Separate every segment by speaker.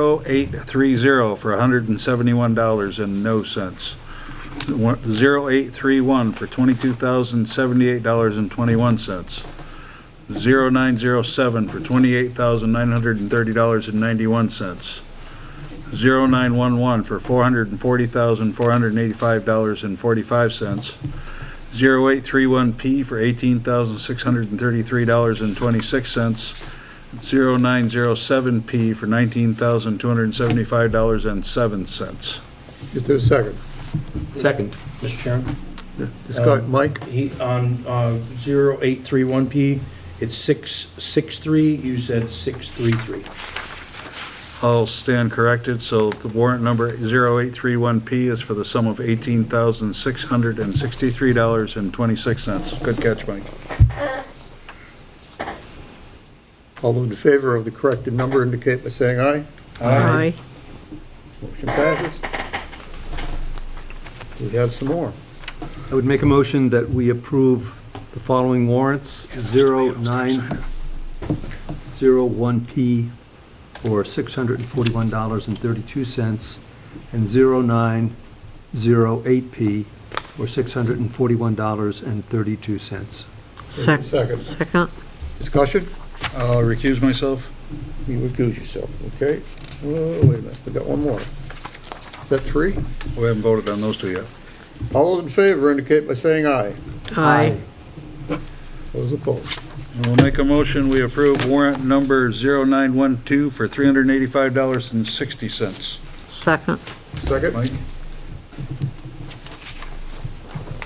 Speaker 1: 0830 for $171 and no cents. One- 0831 for $22,078.21. 0907 for $28,930.91. 0911 for $440,485.45. 0831P for $18,633.26. 0907P for $19,275.07.
Speaker 2: Is there a second?
Speaker 3: Second.
Speaker 4: Mr. Chairman?
Speaker 2: Scott, Uh, Mike,
Speaker 4: He, on, uh, zero eight three one P, it's six, six three, you said six three three.
Speaker 1: I'll stand corrected, so the warrant number 0831P is for the sum of $18,663.26. Good catch, Mike.
Speaker 2: all those in favor of the corrected number indicate by saying aye.
Speaker 5: Aye.
Speaker 2: Motion passes. We have some more.
Speaker 3: I would make a motion that we approve the following warrants, 0901P for $641.32 and 0908P for $641.32.
Speaker 5: Sec-
Speaker 2: Second.
Speaker 5: Second.
Speaker 2: Discussion?
Speaker 1: I'll recuse myself.
Speaker 2: You recuse yourself, okay? Oh, wait a minute, we got one more. Is that three?
Speaker 1: We haven't voted on those two yet.
Speaker 2: All those in favor indicate by saying aye.
Speaker 5: Aye.
Speaker 2: Those opposed.
Speaker 1: We'll make a motion, we approve warrant number 0912 for $385.60.
Speaker 5: Second.
Speaker 2: Second,
Speaker 1: Mike?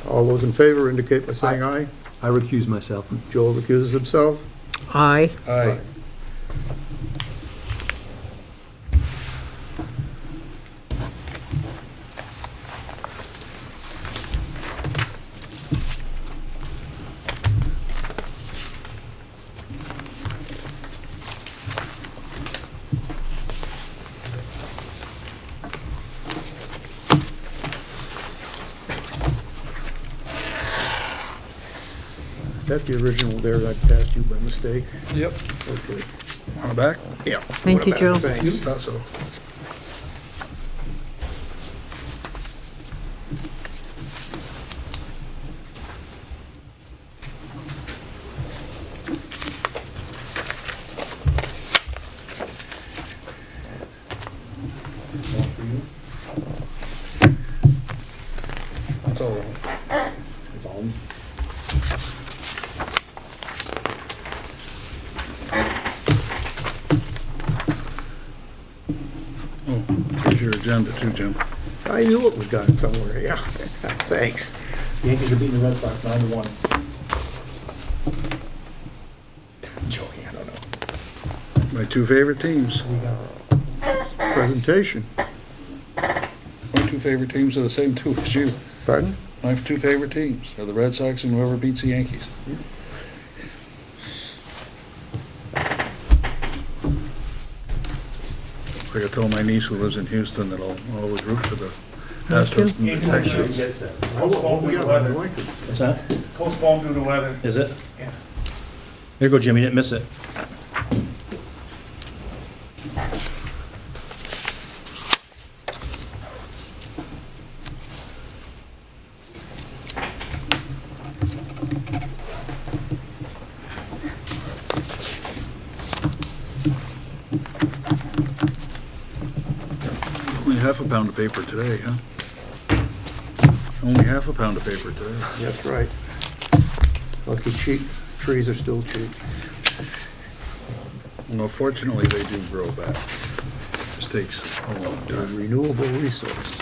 Speaker 2: all those in favor indicate by saying aye.
Speaker 3: I recuse myself.
Speaker 2: Joel recuses himself.
Speaker 5: Aye.
Speaker 1: Aye.
Speaker 2: That the original there that I passed you by mistake?
Speaker 1: Yep.
Speaker 2: Okay.
Speaker 1: On the back?
Speaker 2: Yeah.
Speaker 5: Thank you, Joe.
Speaker 1: You thought so. That's all. Oh, here's your agenda too, Jim.
Speaker 2: I knew it was gone somewhere, yeah. Thanks.
Speaker 4: Yankees are beating the Red Sox nine to one.
Speaker 2: Joking, I don't know.
Speaker 1: My two favorite teams.
Speaker 2: Presentation.
Speaker 1: My two favorite teams are the same two as you.
Speaker 2: Pardon?
Speaker 1: My two favorite teams are the Red Sox and whoever beats the Yankees. I gotta tell my niece who lives in Houston that I'll I'll always root for the Astros and the Texans.
Speaker 6: Postponed due to weather.
Speaker 4: What's that?
Speaker 6: Postponed due to weather.
Speaker 4: Is it?
Speaker 6: Yeah.
Speaker 4: There you go, Jimmy, didn't miss it.
Speaker 1: Only half a pound of paper today, huh? Only half a pound of paper today.
Speaker 2: That's right. Lucky cheap, trees are still cheap.
Speaker 1: Well, fortunately, they do grow back. This takes a long
Speaker 2: They're a
Speaker 1: time.
Speaker 2: Renewable resource.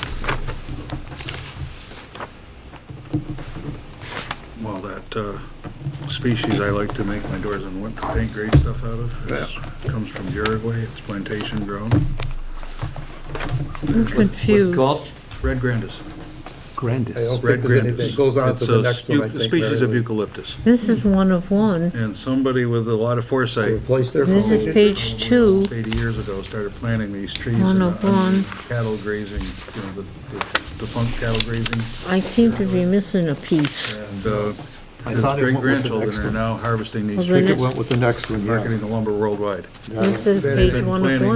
Speaker 1: Well, that uh, species I like to make my doors and window paint great stuff out of is- comes from Uruguay. It's plantation grown.
Speaker 5: I'm confused.
Speaker 1: Red grandis.
Speaker 2: I
Speaker 3: Grandis.
Speaker 2: hope-
Speaker 1: Red
Speaker 2: there's any-
Speaker 1: grandis.
Speaker 2: it goes on to
Speaker 1: It's
Speaker 2: the
Speaker 1: a
Speaker 2: next one, I
Speaker 1: eu-
Speaker 2: think,
Speaker 1: Species of
Speaker 2: Mary Lou.
Speaker 1: eucalyptus.
Speaker 5: This is one of one.
Speaker 1: And somebody with a lot of foresight. Oh.
Speaker 2: Replace their
Speaker 5: This is
Speaker 2: phone.
Speaker 5: page two.
Speaker 1: Eighty years ago, started planting these trees.
Speaker 5: One
Speaker 1: and,
Speaker 5: of
Speaker 1: uh,
Speaker 5: one.
Speaker 1: Cattle grazing, you know, the the defunct cattle grazing.
Speaker 5: I seem to be missing a piece.
Speaker 1: And uh,
Speaker 2: I
Speaker 1: his
Speaker 2: thought it went with the
Speaker 1: great-grandchildren
Speaker 2: next
Speaker 1: are
Speaker 2: one.
Speaker 1: now harvesting
Speaker 5: Well,
Speaker 1: these
Speaker 5: then
Speaker 1: trees,
Speaker 2: It went with the next one, yeah.
Speaker 1: marketing the lumber worldwide.
Speaker 5: This is
Speaker 1: Been
Speaker 5: page one of
Speaker 1: planning
Speaker 5: one.